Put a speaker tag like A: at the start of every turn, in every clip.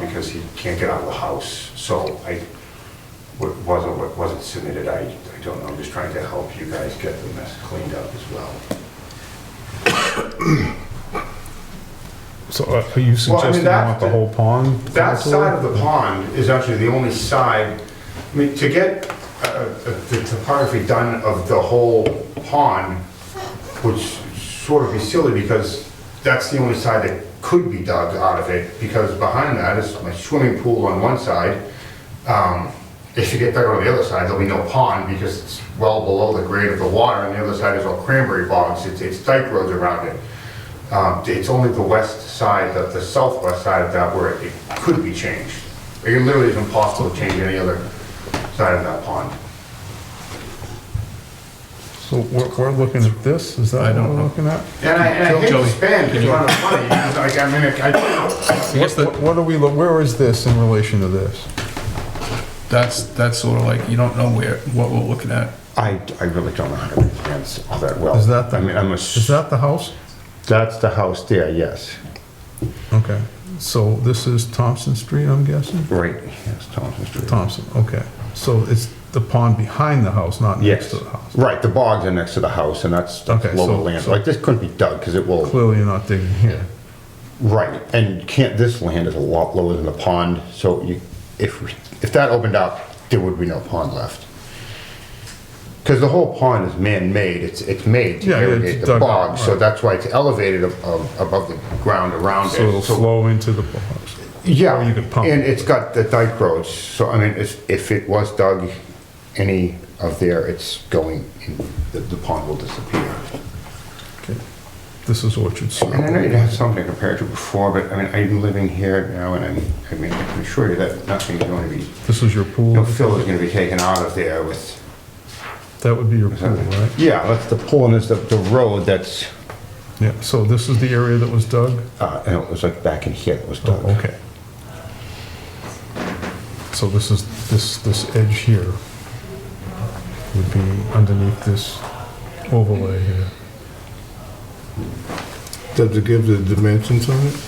A: because he can't get out of the house. So I, what was or what wasn't submitted, I, I don't know, I'm just trying to help you guys get the mess cleaned up as well.
B: So uh, are you suggesting you
A: that-
B: want the whole pond?
A: That
B: filled?
A: side of the pond is actually the only side, I mean, to get uh, uh, the topography done of the whole pond would s- sort of be silly because that's the only side that could be dug out of it because behind that is my swimming pool on one side. Um, If you get dug on the other side, there'll be no pond because it's well below the grade of the water and the other side is all cranberry bogs. It's- It's dike roads around it. Um, It's only the west side, the the southwest side of that where it could be changed. It literally is impossible to change any other side of that pond.
B: So we're, we're looking at this, is that what we're looking at?
A: And I, and I hate to
C: Joey,
A: spend a lot of money, because, like, I mean, I,
C: What's
B: What
C: the,
B: what are we, lo- where is this in relation to this?
C: that's, that's sort of like, you don't know where, what we're looking at.
A: I, I really don't know how to plans all that well.
B: Is that the,
A: I mean, I'm a,
B: is that the house?
A: that's the house there, yes.
B: Okay, so this is Thompson Street, I'm guessing?
A: Right, yes, Thompson Street.
B: Thompson, okay. So it's the pond behind the house, not next
A: Yes,
B: to the house?
A: right, the bogs are next to the house, and that's that's
B: Okay,
A: lower
B: so-
A: land,
B: so-
A: like, this couldn't be dug, because it will,
B: Clearly you're not digging here.
A: right, and can't, this land is a lot lower than the pond, so you, if, we- if that opened up, there would be no pond left. Because the whole pond is man-made, it's, it's made to
B: Yeah, yeah, it's
A: irrigate the
B: dug up,
A: bog, so
B: right.
A: that's why it's elevated ab- ab- above the ground around it.
B: So it'll
A: So-
B: flow into the pond.
A: Yeah,
B: Or you could pump.
A: and it's got the dike roads, so I mean, it's- if it was dug any of there, it's going, in- the the pond will disappear.
B: Okay. This is Orchard Street.
A: And I know you had something to compare to before, but I mean, I'm living here now, and I'm, I mean, I can assure you that nothing's going to be,
B: This is your
A: no
B: pool?
A: fill is going to be taken out of there with,
B: That would be your pool, right?
A: yeah, that's the pool, and there's the, the road that's,
B: Yeah, so this is the area that was dug?
A: uh, and it was like back in here, it was
B: Oh,
A: dug.
B: okay. So this is, this, this edge here would be underneath this overlay here.
D: Does it give the dimensions on it?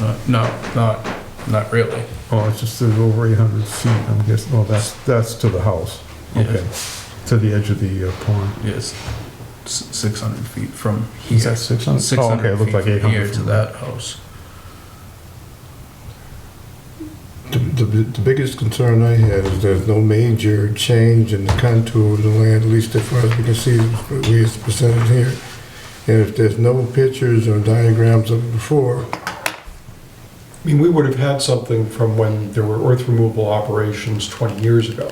C: Uh, No, not, not really.
B: Oh, it's just there's over 800 feet, I'm guessing, oh, that's, that's to the house.
C: Yeah.
B: Okay, to the edge of the uh, pond.
C: Yes, six hundred feet from here.
B: Is that 600?
C: Six
B: Oh, okay, it
C: hundred
B: looked
C: feet
B: like
C: from
B: 800
C: here to
B: from
C: that house.
D: The, the- the biggest concern I had is there's no major change in the contour of the land, at least as far as we can see, we is presented here. And if there's no pictures or diagrams of it before,
E: I mean, we would have had something from when there were earth removal operations 20 years ago.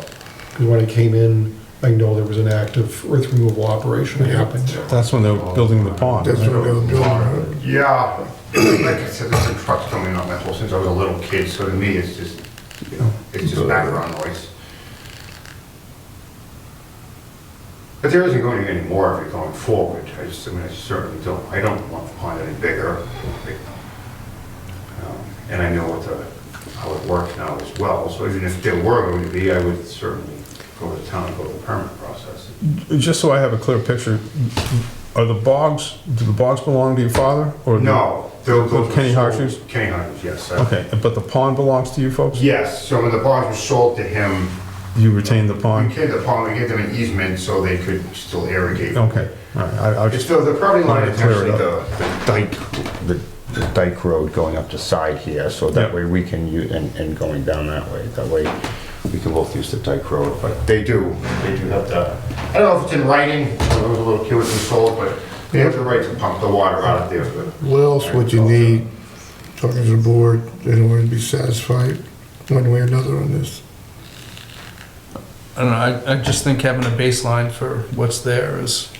E: Because when I came in, I know there was an active earth removal operation happening there.
B: That's when they were building the pond,
D: that's what
B: right?
D: they were doing. right?
A: Yeah, like I said, there's been trucks coming on my whole since I was a little kid, so to me, it's just, you know, it's just background noise. But there isn't going to be any more of it going forward, I just, I mean, I certainly don't, I don't want the pond any bigger. like, um, And I know what the, how it works now as well, so even if there were going to be, I would certainly go to town, and go to the permit process.
B: Just so I have a clear picture, are the bogs, do the bogs belong to your father? or do-
A: No, those- those were
B: Kenny
A: sold-
B: Harshes?
A: Kenny Harshes, yes. I-
B: Okay, but the pond belongs to you folks?
A: Yes, so when the bonds were sold to him,
B: You retain the
A: we
B: pond?
A: gave the pond, we gave them an easement so they could still irrigate.
B: Okay, all right, I, I was
A: It's
B: just,
A: the, the property line is
B: Oh. Clear
A: actually
B: it up.
A: the the dike, the the dike road going up the side here, so that
B: Yeah.
A: way we can use, and, and going down that way, that way we can both use the dike road, but they do, they do have the, I don't know if it's in writing, I was a little kid when it was sold, but they have the right to pump the water out of there, but
D: What else would you need, talking to the board, in order to be satisfied one way or another on this?
C: I don't know, I, I just think having a baseline for what's there is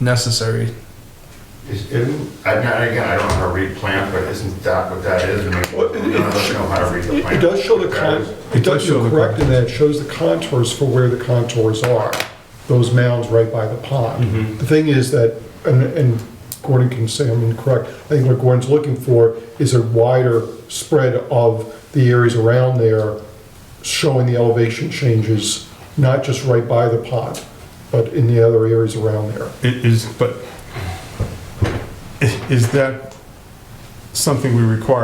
C: necessary.
A: is, isn't, I- now, again, I don't know how to read plans, but isn't that what that is? I mean,
E: Well, it-
A: none of us know how to read the
E: It
A: plan.
E: it does show the con, it does,
B: show
E: you're
B: the
E: correct in that it shows the contours for where the contours are, those mounds right by the pond. The thing is that, and, and Gordon can say I'm incorrect, I think what Gordon's looking for is a wider spread of the areas around there showing the elevation changes, not just right by the pond, but in the other areas around there.
B: i- is, but, i- is that something we require